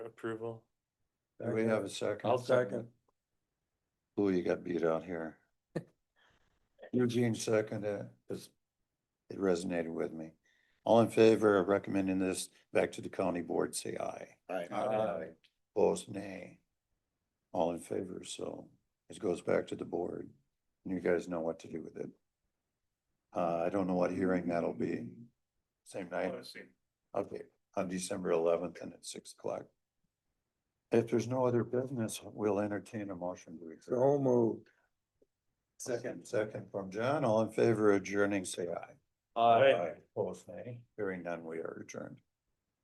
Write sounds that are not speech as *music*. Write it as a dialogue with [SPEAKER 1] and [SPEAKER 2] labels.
[SPEAKER 1] approval.
[SPEAKER 2] Do we have a second?
[SPEAKER 1] I'll second.
[SPEAKER 2] Ooh, you got beat out
[SPEAKER 1] *laughs*
[SPEAKER 2] here. Eugene seconded, because it resonated with me. All in favor of recommending this back to the county board, say aye.
[SPEAKER 1] Aye.
[SPEAKER 2] Opposed, nay. All in favor, so it goes back to the board, and you guys know what to do with it. Uh, I don't know what hearing that'll be, same night? Okay, on December eleventh and at six o'clock. If there's no other business, we'll entertain a motion to adjourn.
[SPEAKER 3] So moved.
[SPEAKER 2] Second. Second from John, all in favor of adjourning, say aye.
[SPEAKER 1] Aye.
[SPEAKER 2] Opposed, nay. Hearing none, we are adjourned.